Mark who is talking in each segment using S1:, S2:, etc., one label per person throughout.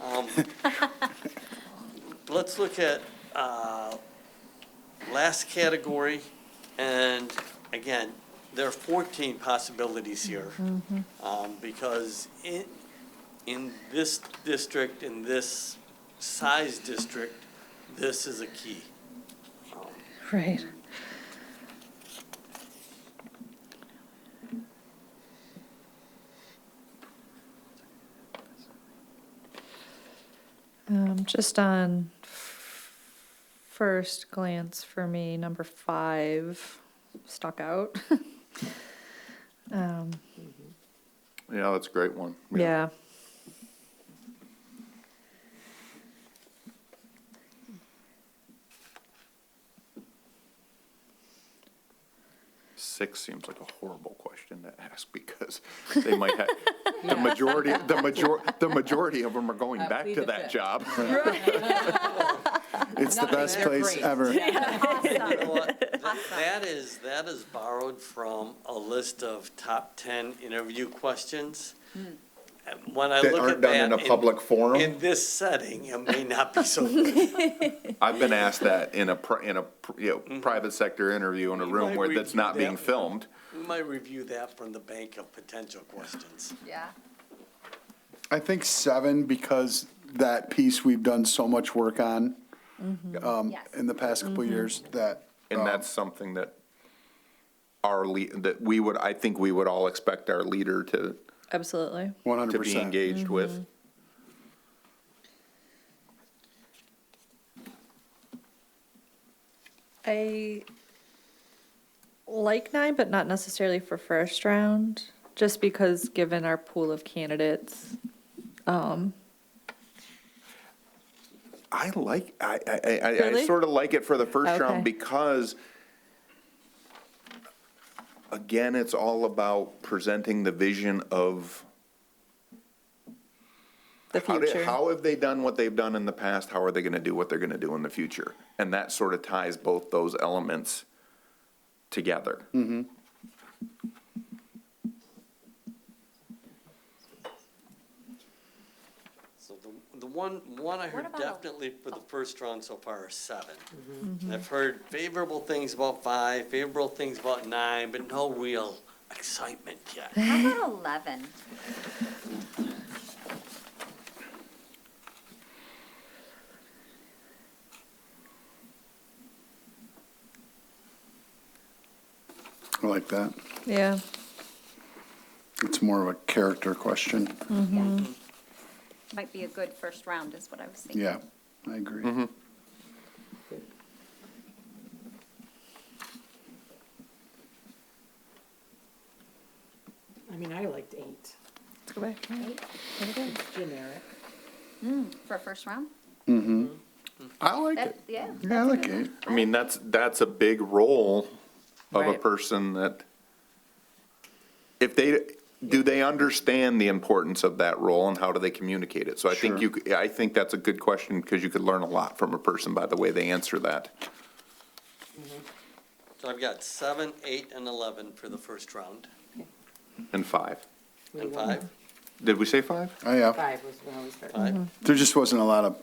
S1: Um, Let's look at uh, last category, and again, there are 14 possibilities here. Um, Because in, in this district, in this size district, this is a key.
S2: Right. Um, just on f- first glance for me, number five stuck out. Um,
S3: Yeah, that's a great one.
S2: yeah.
S3: Six seems like a horrible question to ask because they might have, the majority, the major, the majority of them are going
S4: Uh,
S3: back
S4: leave
S3: to
S4: it
S3: that
S4: there.
S3: job.
S5: It's the
S4: Nothing.
S5: best
S4: They're
S5: place
S4: great.
S5: ever.
S1: You know what? Th- That is, that is borrowed from a list of top 10 interview questions. And When I
S3: That
S1: look
S3: aren't
S1: at
S3: done in
S1: that.
S3: a public
S1: In
S3: forum.
S1: this setting, it may not be so good.
S3: I've been asked that in a, pri- in a, pr- you know, private sector interview in a
S1: Mm-hmm. You
S3: room
S1: might
S3: where that's
S1: review
S3: not being
S1: that.
S3: filmed.
S1: We might review that from the bank of potential questions.
S6: Yeah.
S5: I think seven, because that piece we've done so much work on um,
S6: Yes.
S5: in the past couple of years that.
S3: And
S5: um,
S3: that's something that our lead, that we would, I think we would all expect our leader to,
S2: Absolutely.
S5: One hundred
S3: to be
S5: percent.
S3: engaged with.
S2: I like nine, but not necessarily for first round, just because given our pool of candidates.
S3: I like, I, I, I, I
S2: Really?
S3: sort of like it for the first
S2: Okay.
S3: round because, again, it's all about presenting the vision of.
S2: The
S3: how did-
S2: future.
S3: How have they done what they've done in the past? How are they gonna do what they're gonna do in the future? And that sort of ties both those elements together.
S1: So the, the one, one I heard
S6: about a-
S1: definitely for the first round so far is seven.
S6: Mm-hmm.
S1: And I've heard favorable things about five, favorable things about nine, but no real excitement yet.
S6: How about 11?
S5: I like that.
S2: Yeah,
S5: It's more of a character question.
S6: Yeah. Might be a good first round is what I was thinking.
S5: Yeah, I agree.
S3: Mm-hmm.
S4: I mean, I liked eight,
S2: let's go back.
S4: generic.
S6: For a first round?
S5: I like
S6: That,
S5: it.
S6: yeah.
S5: Yeah, I
S6: that's a
S5: like
S6: good
S5: it.
S6: one.
S3: I mean, that's, that's a big role of a
S2: Right.
S3: person that, if they, do they understand the importance of that role and how do they communicate it? So I think
S5: Sure.
S3: you, c- I think that's a good question because you could learn a lot from a person by the way they answer that.
S1: So I've got seven, eight, and 11 for the first round.
S3: And five.
S1: And five,
S3: Did we say five?
S5: Oh, yeah.
S4: Five was when I was starting.
S6: Mm-hmm.
S1: five.
S5: There just wasn't a lot of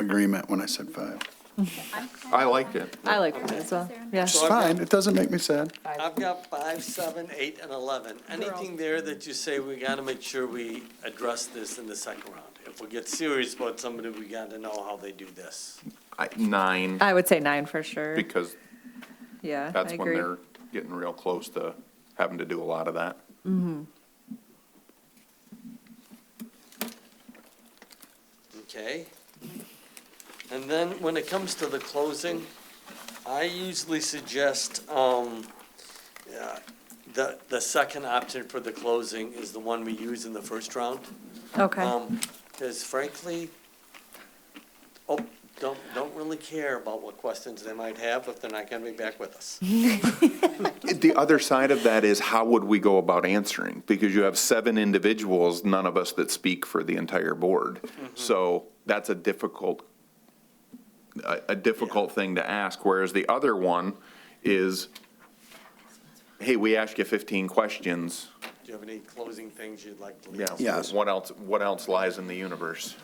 S5: agreement when I said five.
S6: I'm-
S3: I liked it.
S2: I like that as well, yeah.
S5: It's
S1: So I've got-
S5: fine. It doesn't make me sad.
S1: I've got five, seven, eight, and 11. Anything there that you say, we got to make sure we address this in the second round? If we get serious about somebody, we got to know how they do this.
S3: I- Nine,
S2: I would say nine for sure,
S3: because
S2: yeah, I
S3: that's when
S2: agree.
S3: they're getting real close to having to do a lot of that.
S1: Okay? And then when it comes to the closing, I usually suggest, um, yeah, the, the second option for the closing is the one we use in the first round.
S3: Um,
S2: Okay,
S1: Because Um, frankly, oh, don't, don't really care about what questions they might have if they're not gonna be back with us.
S3: The other side of that is how would we go about answering? Because you have seven individuals, none of us that speak for the entire board. So that's a difficult, a, a difficult thing to ask, whereas the other one is, hey, we asked you fifteen questions.
S1: Do you have any closing things you'd like to leave?
S3: Yeah,
S5: Yes.
S3: What else, what else lies in the universe?